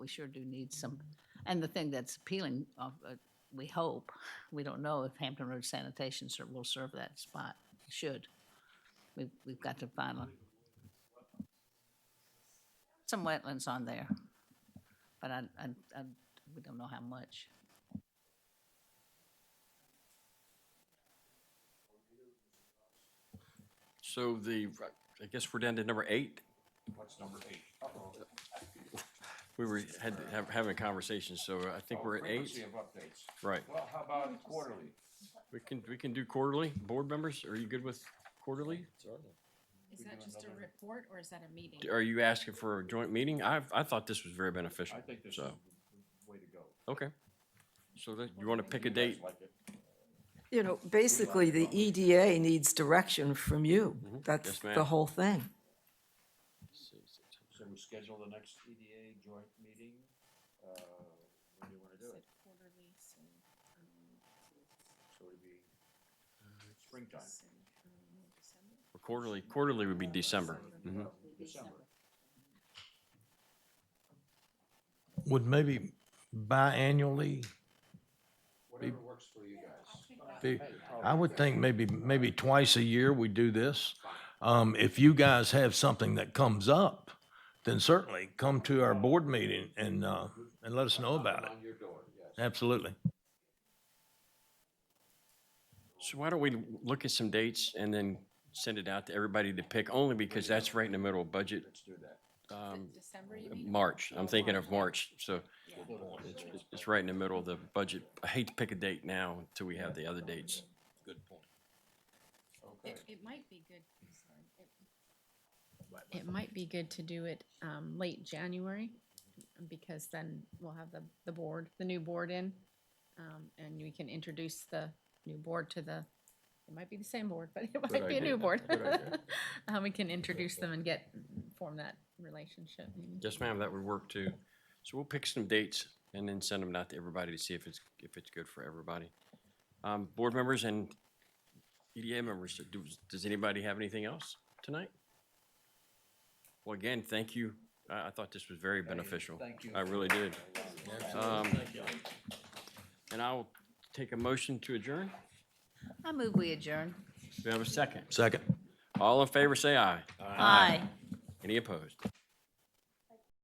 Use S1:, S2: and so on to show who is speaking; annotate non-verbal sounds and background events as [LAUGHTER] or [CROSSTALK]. S1: we sure do need some, and the thing that's appealing, of, uh, we hope, we don't know if Hampton Road Sanitation Ser- will serve that spot, should. We've, we've got to find a- some wetlands on there, but I, I, I, we don't know how much.
S2: So the, I guess we're down to number eight. What's number eight? We were, had, have- having a conversation, so I think we're at
S3: Frequency
S2: eight.
S3: of updates.
S2: Right.
S3: Well, how about quarterly?
S2: We can, we can do quarterly. Board members, are you good with quarterly?
S4: Is that just a report or is that a meeting?
S2: Are you asking for a joint meeting? I, I thought this was very beneficial,
S3: I think this is
S2: so,
S3: the way to go.
S2: okay. So that, you want to pick a
S3: You guys
S2: date?
S3: like it?
S5: You know, basically, the EDA needs direction from you. That's
S2: Mm-hmm. Yes, ma'am.
S5: the whole thing.
S3: So we schedule the next EDA joint meeting, uh, when do you wanna do it?
S4: Quarterly, so, um,
S3: So it'd be springtime,
S4: so, um, December?
S2: Quarterly, quarterly would be December. Mhm.
S3: December.
S6: Would maybe biannually
S3: Whatever works for you guys.
S6: be, I would think maybe, maybe twice a year we do this. Um, if you guys have something that comes up, then certainly come to our board meeting and, uh, and let us know about it.
S3: On your door, yes.
S6: Absolutely.
S2: So why don't we look at some dates and then send it out to everybody to pick, only because that's right in the middle of budget,
S3: Let's do that.
S2: um,
S4: December, you mean?
S2: March. I'm thinking of March, so.
S4: Yeah.
S2: It's, it's- it's right in the middle of the budget. I hate to pick a date now until we have the other dates.
S3: Okay.
S4: It, it might be good, sorry, it- it might be good to do it, um, late January,
S2: Mm-hmm.
S4: because then we'll have the, the board, the new board in. Um, and we can introduce the new board to the, it might be the same board, [LAUGHS] but it might be a
S2: idea.
S4: new board.
S2: Good idea.
S4: [LAUGHS] Um, we can introduce them and get, form that relationship.
S2: Yes, ma'am, that would work too. So we'll pick some dates and then send them out to everybody to see if it's, if it's good for everybody. Um, board members and EDA members, do, does anybody have anything else tonight? Well, again, thank you. I, I thought this was very beneficial.
S3: thank you.
S2: I really did. Um, and I'll take a motion to adjourn.
S1: I move we adjourn.
S2: Do we have a second?
S6: Second.
S2: All in favor, say aye.
S1: Aye.
S2: Any opposed?